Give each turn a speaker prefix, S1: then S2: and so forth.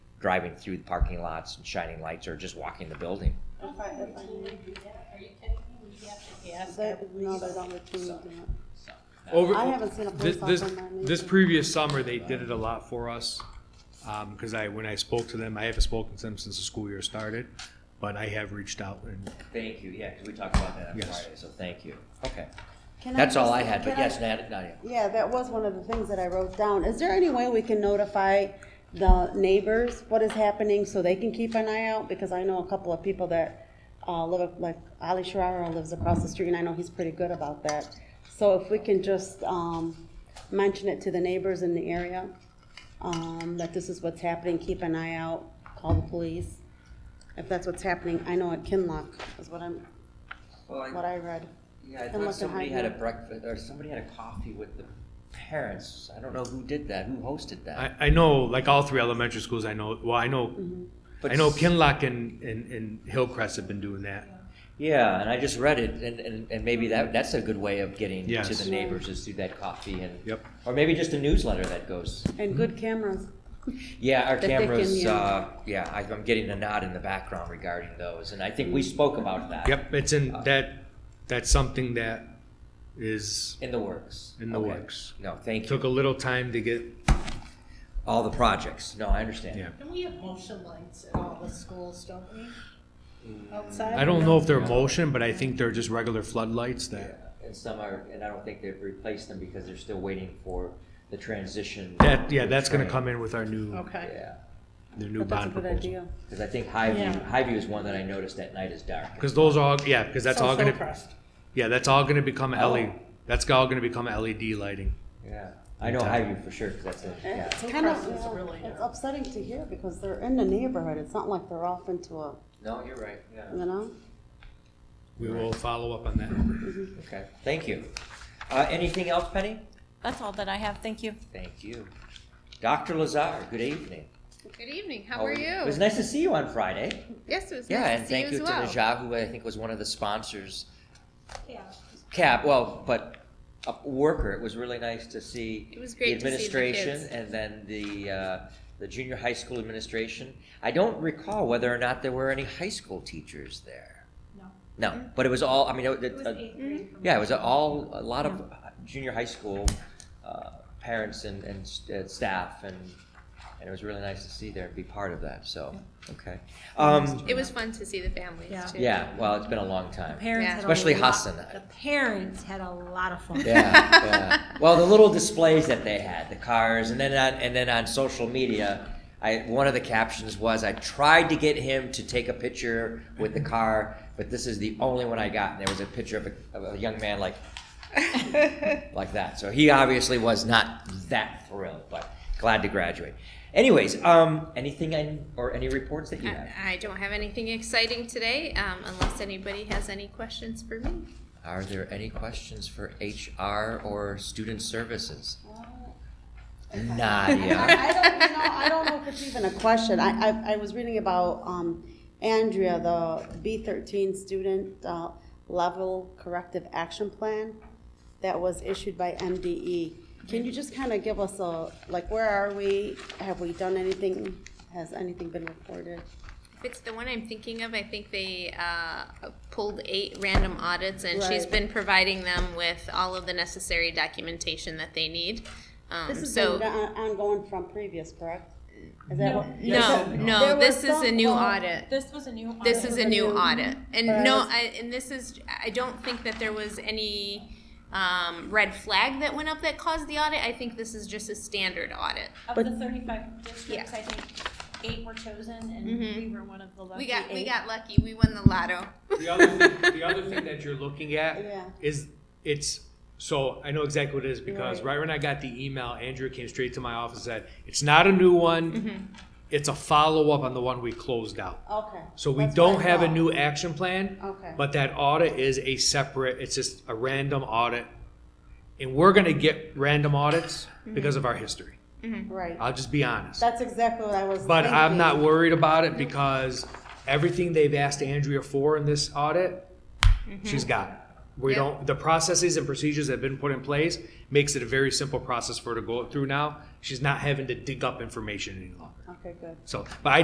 S1: driving through the parking lots and shining lights or just walking the building.
S2: If I, if I knew.
S3: Are you kidding me? We have to ask
S2: They,
S3: every
S2: no,
S3: reason.
S2: they don't routinely do it.
S1: uh,
S4: Over,
S2: I haven't seen a police
S4: this, this,
S2: officer in my
S4: this
S2: life.
S4: previous summer, they did it a lot for us. Um, cause I, when I spoke to them, I haven't spoken to them since the school year started, but I have reached out and,
S1: Thank you, yeah, because we talked about that on
S4: Yes.
S1: Friday, so thank you. Okay,
S2: Can
S1: that's all
S2: just-
S1: I had, but
S2: can I-
S1: yes, Nadia, Nadia.
S2: Yeah, that was one of the things that I wrote down. Is there any way we can notify the neighbors what is happening so they can keep an eye out? Because I know a couple of people that uh, live, like Ali Sharara lives across the street, and I know he's pretty good about that. So if we can just um, mention it to the neighbors in the area, um, that this is what's happening, keep an eye out, call the police. If that's what's happening, I know at Kinlock is what I'm,
S1: Well,
S2: what I read.
S1: Yeah, I
S2: And
S1: thought
S2: look at
S1: somebody had a
S2: Heidi.
S1: breakfast, or somebody had a coffee with the parents. I don't know who did that, who hosted that.
S4: I, I know, like all three elementary schools, I know, well, I know,
S2: Mm-hmm.
S1: But
S4: I know
S1: s-
S4: Kinlock and, and, and Hillcrest have been doing that.
S1: Yeah, and I just read it, and, and, and maybe that, that's a good way of getting to
S4: Yes.
S1: the neighbors is through that coffee and.
S4: Yep.
S1: Or maybe just a newsletter that goes,
S2: And good cameras.
S1: yeah, our
S2: That they
S1: cameras,
S2: can, yeah.
S1: uh, yeah, I- I'm getting a nod in the background regarding those, and I think we spoke about that.
S4: Yep, it's in, that, that's something that is,
S1: In the works.
S4: In the
S1: Okay.
S4: works.
S1: No, thank
S4: took a
S1: you.
S4: little time to get,
S1: All the projects, no, I understand.
S4: yeah.
S3: Don't we have motion lights at all the schools, don't we? Outside?
S4: I don't know if they're
S1: Yeah.
S4: motion, but I think they're just regular floodlights
S1: Yeah,
S4: that,
S1: And some are, and I don't think they've replaced them because they're still waiting for the transition.
S4: that, yeah, that's gonna
S1: train.
S4: come in with our new,
S3: Okay.
S1: Yeah,
S4: their new
S2: But that's a
S4: bond
S2: good
S4: proposal.
S2: idea.
S1: because I think Highview,
S3: Yeah.
S1: Highview is one that I noticed at night is dark.
S4: Cause those are all, yeah, cause that's
S3: So
S4: all gonna,
S3: Hillcrest.
S4: yeah, that's all gonna become
S1: Oh.
S4: LED, that's all gonna become LED lighting.
S1: Yeah, I know Highview for sure, because that's it, yeah.
S2: It's kind of,
S3: Hillcrest is
S2: yeah,
S3: really uh,
S2: it's
S3: narrow.
S2: upsetting to hear because they're in the neighborhood. It's not like they're off into a,
S1: No, you're right, yeah.
S2: you know?
S4: We will follow up on that.
S1: Okay, thank you. Uh, anything else, Penny?
S5: That's all that I have, thank you.
S1: Thank you. Dr. Lazar, good evening.
S6: Good evening. How are
S1: It was
S6: you?
S1: nice to see you on Friday.
S6: Yes, it was
S1: Yeah,
S6: nice
S1: and
S6: to see you
S1: thank you
S6: as
S1: to
S6: well.
S1: Najah, who I think was one of the sponsors.
S3: Yeah.
S1: Cap, well, but a worker, it was really nice to see.
S6: It was great to see
S1: The
S6: the
S1: administration
S6: kids.
S1: and then the, uh, the junior high school administration. I don't recall whether or not there were any high school teachers there.
S3: No.
S1: No, but it was all, I mean, it,
S3: It was
S1: uh,
S3: eighth grade. for me.
S1: Yeah, it was all, a lot of junior high school uh, parents and, and s- uh, staff, and, and it was really nice to see there and be part of that, so, okay. Um,
S6: It was fun to see the families
S7: Yeah.
S6: too.
S1: yeah, well, it's been a long time.
S7: Parents
S6: Yeah.
S7: had a
S1: Especially
S7: lot-
S1: Hassan.
S7: The parents had a lot of fun.
S1: Yeah, yeah. Well, the little displays that they had, the cars, and then on, and then on social media, I, one of the captions was, I tried to get him to take a picture with the car, but this is the only one I got, and there was a picture of a, of a young man like like that. So he obviously was not that thrilled, but glad to graduate. Anyways, um, anything I, or any reports that you have?
S6: I, I don't have anything exciting today, um, unless anybody has any questions for me.
S1: Are there any questions for HR or student services? Nadia.
S2: I don't, you know, I don't know if it's even a question. I, I, I was reading about, um, Andrea, the B thirteen student, uh, level corrective action plan that was issued by MDE. Can you just kind of give us a, like, where are we? Have we done anything? Has anything been reported?
S6: If it's the one I'm thinking of, I think they uh, pulled eight random audits, and she's
S2: Right.
S6: been providing them with all of the necessary documentation that they need. Um,
S2: This has
S6: so
S2: been on- ongoing from previous, correct? Is that what?
S6: no,
S2: There
S6: no,
S2: were
S6: this is a
S2: some
S6: new
S2: calls-
S6: audit.
S7: This was a new.
S6: This is a new audit, and
S2: But I
S6: no,
S2: was-
S6: I, and this is, I don't think that there was any, um, red flag that went up that caused the audit, I think this is just a standard audit.
S7: Of
S2: But-
S7: the thirty-five districts, I think eight were chosen and we were one of the lucky
S6: Mm-hmm. We got, we
S7: eight.
S6: got lucky, we won the lotto.
S4: The other, thing- the other thing that you're looking at
S2: Yeah.
S4: is it's so I know exactly what it is because
S2: Right.
S4: right, when I got the email, Andrew came straight to my office and said, It's not a new one,
S2: Mm-hmm.
S4: it's a follow up on the one we closed out.
S2: Okay.
S4: So we
S2: That's what I
S4: don't have a
S2: thought.
S4: new action plan,
S2: Okay.
S4: but that audit is a separate, it's just a random audit. And we're going to get random audits because of our history.
S2: Right.
S4: I'll just be honest.
S2: That's exactly what I was.
S4: But I'm not
S2: thinking.
S4: worried about it
S2: Mm-hmm.
S4: because everything they've asked Andrea for in this audit, she's got it. We
S6: Yeah.
S4: don't, the processes and procedures that have been put in place makes it a very simple process for her to go through now. She's not having to dig up information any longer.
S2: Okay, good.
S4: So, but I